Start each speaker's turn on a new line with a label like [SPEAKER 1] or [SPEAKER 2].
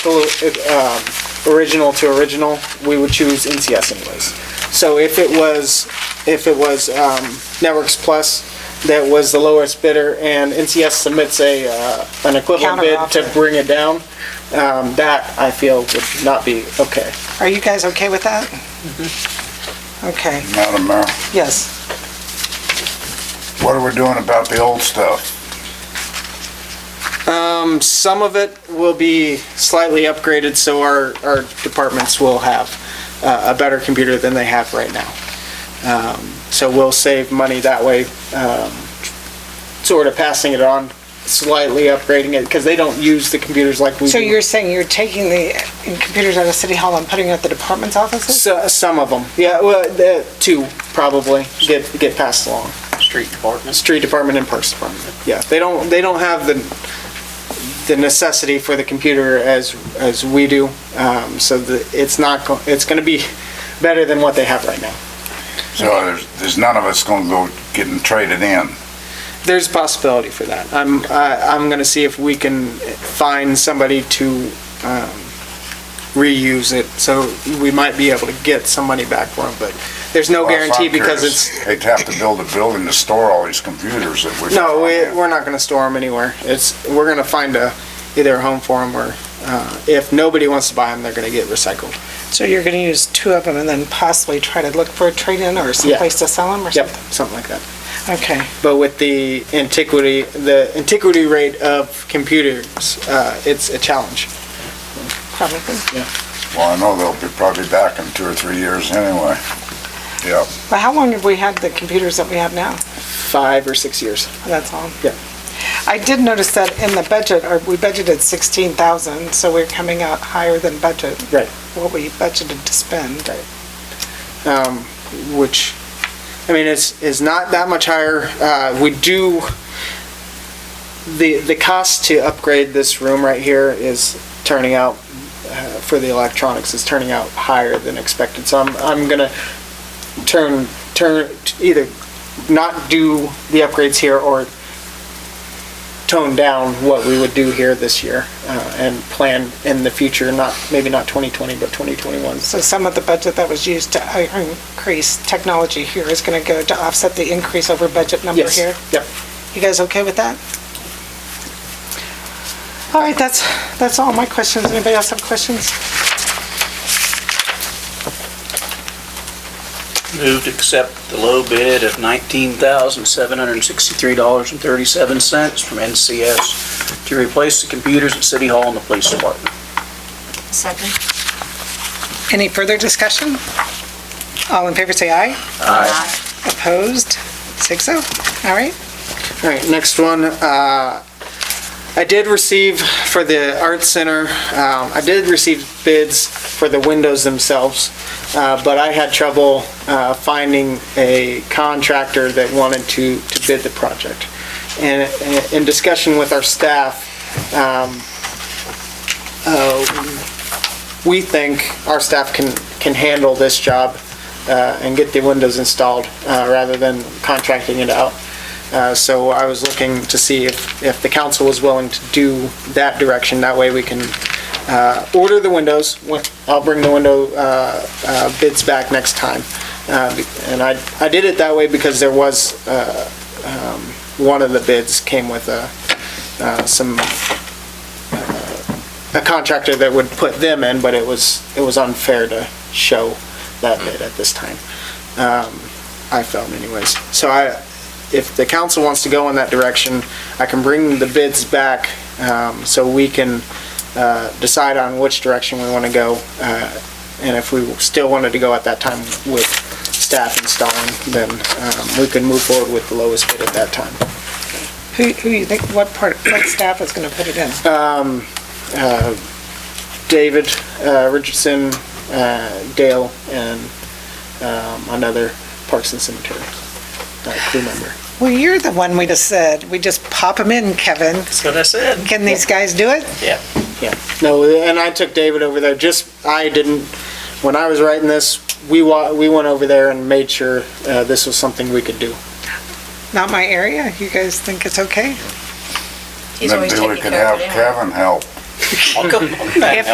[SPEAKER 1] collo- if, um, original to original, we would choose NCS anyways. So if it was, if it was um, Networks Plus that was the lowest bidder and NCS submits a, uh, an equivalent bid to
[SPEAKER 2] Counteroffer.
[SPEAKER 1] bring it down, um, that I feel would not be okay.
[SPEAKER 2] Are you guys okay with that? Okay,
[SPEAKER 3] Madam Mayor,
[SPEAKER 2] yes.
[SPEAKER 3] what are we doing about the old stuff?
[SPEAKER 1] Um, Some of it will be slightly upgraded, so our, our departments will have uh, a better computer than they have right now. Um, So we'll save money that way, um, sort of passing it on, slightly upgrading it, because they don't use the computers like we do.
[SPEAKER 2] So you're saying you're taking the computers out of City Hall and putting it at the department's offices?
[SPEAKER 1] So- uh, Some of them, yeah, well, the two probably get, get passed along.
[SPEAKER 4] street department.
[SPEAKER 1] Street Department and Parks Department, yeah. They don't, they don't have the, the necessity for the computer as, as we do, um, so the, it's not, go- it's gonna be better than what they have right now.
[SPEAKER 3] So
[SPEAKER 1] Mm-hmm.
[SPEAKER 3] there's, there's none of us gonna go getting traded in.
[SPEAKER 1] There's a possibility for that. I'm, I, I'm gonna see if we can find somebody to, um, reuse it, so we might be able to get some money back for them, but there's no
[SPEAKER 3] Well, that's
[SPEAKER 1] guarantee
[SPEAKER 3] what I'm
[SPEAKER 1] because
[SPEAKER 3] curious.
[SPEAKER 1] it's,
[SPEAKER 3] They'd have to build a building to store all these computers that we.
[SPEAKER 1] no, we, we're not gonna store them anywhere. It's, we're gonna find a, either a home for them or, uh, if nobody wants to buy them, they're gonna get recycled.
[SPEAKER 2] So you're going to use two of them and then possibly try to look for a trade-in or someplace to sell them or
[SPEAKER 1] Yep,
[SPEAKER 2] something?
[SPEAKER 1] something like that.
[SPEAKER 2] Okay,
[SPEAKER 1] But with the antiquity, the antiquity rate of computers, uh, it's a challenge.
[SPEAKER 2] probably.
[SPEAKER 3] Well, I know they'll be probably back in two or three years anyway. Yeah,
[SPEAKER 2] But how long have we had the computers that we have now?
[SPEAKER 1] Five or six years.
[SPEAKER 2] That's all.
[SPEAKER 1] Yeah.
[SPEAKER 2] I did notice that in the budget, or we budgeted 16,000, so we're coming out higher than budget.
[SPEAKER 1] Right.
[SPEAKER 2] What we budgeted to spend.
[SPEAKER 1] um, which, I mean, is, is not that much higher. Uh, we do, the, the cost to upgrade this room right here is turning out, uh, for the electronics, is turning out higher than expected. So I'm, I'm gonna turn, turn, either not do the upgrades here or tone down what we would do here this year, uh, and plan in the future, not, maybe not 2020, but 2021.
[SPEAKER 2] So some of the budget that was used to uh, increase technology here is going to go to offset the increase over budget number
[SPEAKER 1] Yes,
[SPEAKER 2] here?
[SPEAKER 1] Yep.
[SPEAKER 2] You guys okay with that? All right, that's, that's all my questions. Anybody else have questions?
[SPEAKER 4] Move to accept the low bid of $19,763.37 from NCS to replace the computers at City Hall and the Police Department.
[SPEAKER 5] Second.
[SPEAKER 2] Any further discussion? All in favor, say aye. Opposed? Six oh. All right.
[SPEAKER 1] All right, next one. uh, I did receive for the art center, um, I did receive bids for the windows themselves, uh, but I had trouble uh, finding a contractor that wanted to to bid the project. And uh, in discussion with our staff, um, uh, we think our staff can can handle this job uh, and get the windows installed uh, rather than contracting it out. Uh, So I was looking to see if, if the council was willing to do that direction. That way we can uh, order the windows. When- I'll bring the window uh, uh, bids back next time. Uh, be- And I, I did it that way because there was, uh, um, one of the bids came with a, uh, some, uh, a contractor that would put them in, but it was, it was unfair to show that bid at this time. Um, I felt anyways. So I, if the council wants to go in that direction, I can bring the bids back um, so we can uh, decide on which direction we want to go. uh, And if we still wanted to go at that time with staff installing, then um, we could move forward with the lowest bid at that time.
[SPEAKER 2] Who, who you think, what part, what staff is going to put it in?
[SPEAKER 1] Um, uh, David uh, Richardson, uh, Dale, and um, another Parks and Cemetery uh, crew member.
[SPEAKER 2] Well, you're the one we just said, we just pop them in, Kevin.
[SPEAKER 4] That's what I said.
[SPEAKER 2] Can these guys do it?
[SPEAKER 1] Yeah, no, and I took David over there, just, I didn't, when I was writing this, we wa, we went over there and made sure, uh, this was something we could do.
[SPEAKER 2] Not my area. You guys think it's okay?
[SPEAKER 5] He's always
[SPEAKER 3] maybe we
[SPEAKER 5] taking
[SPEAKER 3] could
[SPEAKER 5] care
[SPEAKER 3] have
[SPEAKER 5] of it anyway.
[SPEAKER 3] Kevin help.
[SPEAKER 4] I'll come-
[SPEAKER 2] If